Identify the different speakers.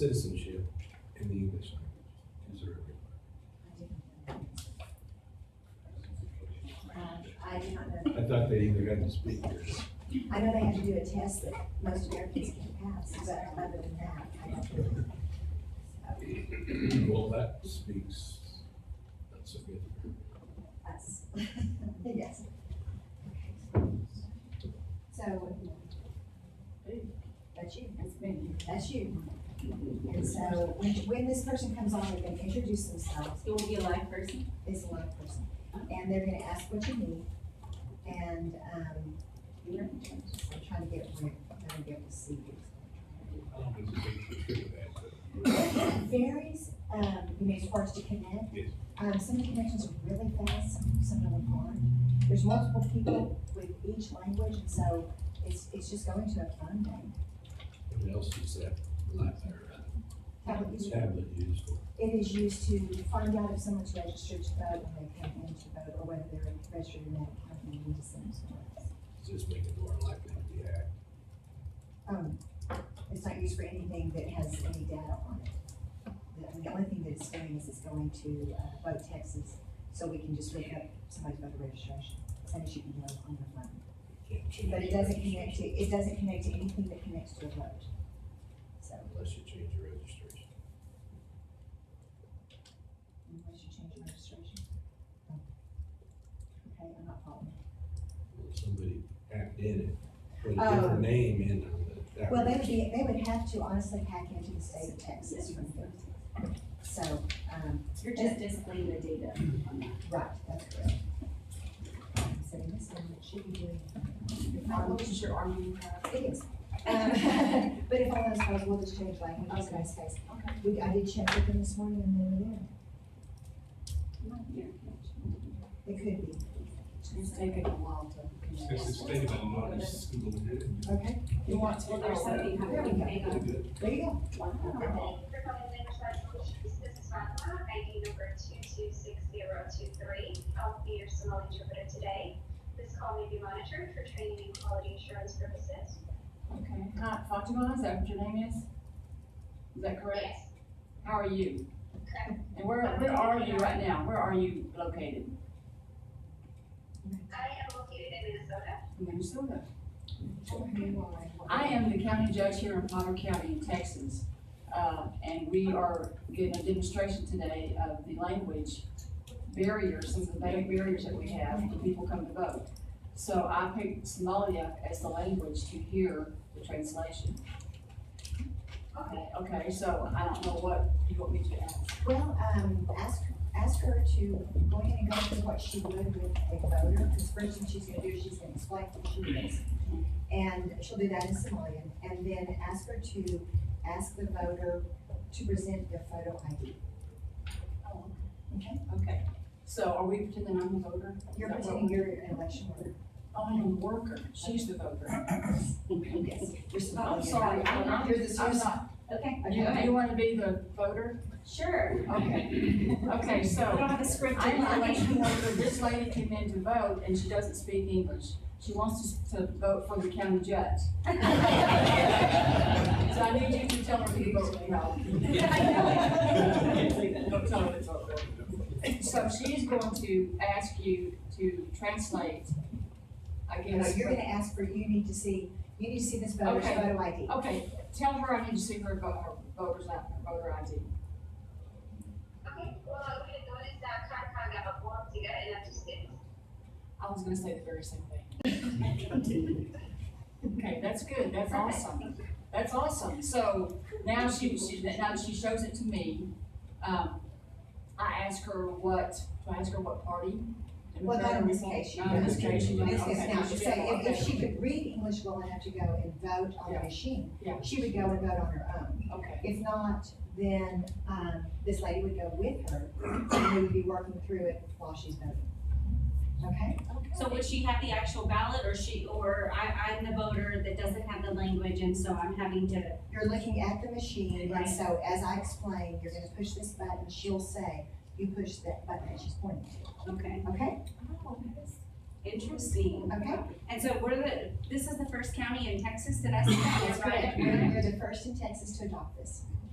Speaker 1: citizenship in the English language. Is there a-
Speaker 2: Um, I do not know.
Speaker 1: I thought they either had to speak or.
Speaker 2: I know they have to do a test that most Americans can pass, but other than that, I don't know.
Speaker 1: Well, that speaks, that's a good.
Speaker 2: Us. Yes. So. That's you. That's me. That's you. And so when, when this person comes on, they're gonna introduce themselves,
Speaker 3: It will be a live person?
Speaker 2: is a live person, and they're gonna ask what you need. And, um, you're, I'm trying to get, rid- I'm trying to be able to see you.
Speaker 1: I don't think it's a big issue with that.
Speaker 2: varies, um, you know, as far as to connect.
Speaker 1: Yes.
Speaker 2: Um, some connections are really fast, some, some of them aren't. There's multiple people with each language, and so it's, it's just going to a fun day.
Speaker 1: What else is that like there?
Speaker 2: Tablet is-
Speaker 1: Tablet used for.
Speaker 2: It is used to find out if someone's registered to vote when they come in to vote, or whether they're registered in that county, and we just send them to us.
Speaker 1: Does this make it more likely to be hacked?
Speaker 2: Um, it's not used for anything that has any data on it. The, the only thing that it's doing is it's going to, uh, vote Texas, so we can just look up somebody's voter registration, same as you can do on your phone.
Speaker 1: Can't change
Speaker 2: But it doesn't connect to, it doesn't connect to anything that connects to a vote. So,
Speaker 1: Unless you change your registration.
Speaker 2: unless you change your registration. Oh. Okay, I'm not following.
Speaker 1: Well, Somebody hacked in it, put a
Speaker 2: Oh.
Speaker 1: different name in on the. tablet.
Speaker 2: Well, they would be, they would have to honestly hack into the state of Texas from there. So, um,
Speaker 3: You're just displaying the data on that.
Speaker 2: Right, that's correct. So this one, it should be doing. Um,
Speaker 3: is your army?
Speaker 2: It is. Um, But if all those files, we'll just change languages in this case.
Speaker 3: Okay.
Speaker 2: We, I did check with them this morning and they were there. It could be,
Speaker 3: It's taking a while to connect.
Speaker 4: This is state of Illinois school.
Speaker 2: okay?
Speaker 3: You want to, there's something
Speaker 2: There we
Speaker 3: happening.
Speaker 2: go.
Speaker 3: Hang on.
Speaker 2: There you go.
Speaker 3: Wow.
Speaker 5: ID number two two six zero two three. I'll be your Somali interpreter today. This call may be monitored for training and quality assurance purposes.
Speaker 6: Okay, hi, Fatima, is that what your name is? Is that correct?
Speaker 5: Yes,
Speaker 6: How are you?
Speaker 5: correct.
Speaker 6: And where, where are you right now? Where are you located?
Speaker 5: I am located in Minnesota.
Speaker 6: In Minnesota.
Speaker 2: You are.
Speaker 6: I am the county judge here in Potter County in Texas. Uh, and we are giving a demonstration today of the language barriers, some of the big barriers that we have when people come to vote. So I picked Somalia as the language to hear the translation. Okay, okay, so I don't know what you want me to add.
Speaker 2: Well, um, ask, ask her to go ahead and go through what she would with a voter, because first thing she's gonna do is she's gonna explain what she is. And she'll do that in Somalian, and then ask her to ask the voter to present their photo ID.
Speaker 6: Oh,
Speaker 2: Okay?
Speaker 6: Okay, so are we pretending I'm the voter?
Speaker 2: You're pretending you're an election worker.
Speaker 6: I am a Oh, worker, she's the voter.
Speaker 2: Yes. You're Somalian.
Speaker 6: I'm sorry, I'm not,
Speaker 2: You're the-
Speaker 6: I'm not.
Speaker 3: Okay,
Speaker 6: You,
Speaker 2: Okay.
Speaker 6: you wanna be the voter?
Speaker 3: sure.
Speaker 6: Okay, okay,
Speaker 3: I don't
Speaker 6: so.
Speaker 3: have a script. in
Speaker 6: I'm
Speaker 3: front
Speaker 6: the
Speaker 3: of me.
Speaker 6: election worker, this lady came in to vote and she doesn't speak English. She wants us to vote for the county judge. So I need you to tell her to vote no. Don't tell her to vote no. So she's going to ask you to translate, I
Speaker 2: You know,
Speaker 6: guess.
Speaker 2: you're
Speaker 6: what-
Speaker 2: gonna ask for, you need to see, you need to see this voter's
Speaker 6: Okay.
Speaker 2: photo ID.
Speaker 6: Okay, tell her I need to see her vote, her voter's, I- her voter ID.
Speaker 5: Okay, well, I'm gonna go to that Concon, I'm a form to get it, I'm just kidding.
Speaker 6: I was gonna say the very same thing. Okay, that's good, that's awesome, that's awesome, so now she, she, now she shows it to me. Um, I ask her what, do I ask her what party?
Speaker 2: Well, not in this case, she
Speaker 6: Not in this
Speaker 1: doesn't.
Speaker 6: case, she
Speaker 2: In
Speaker 6: doesn't,
Speaker 2: this case,
Speaker 6: okay.
Speaker 2: now, so if, if she
Speaker 6: Okay,
Speaker 2: could read English well enough to go and vote on the
Speaker 6: Yeah.
Speaker 2: machine,
Speaker 6: Yeah.
Speaker 2: she would go and vote on her own.
Speaker 6: Okay,
Speaker 2: If not, then, um, this lady would go with her, and we would be working through it while she's voting. Okay?
Speaker 3: So would she have the actual ballot or she, or I, I'm the voter that doesn't have the language and so I'm having to,
Speaker 2: You're looking at the machine, and
Speaker 3: Right.
Speaker 2: so as I explain, you're gonna push this button, she'll say, you push that button that she's pointing to,
Speaker 3: okay.
Speaker 2: okay?
Speaker 3: Interesting.
Speaker 2: Okay?
Speaker 3: And so we're the, this is the first county in Texas that I see that,
Speaker 2: That's
Speaker 3: right?
Speaker 2: correct. We're, we're the first in Texas to adopt this.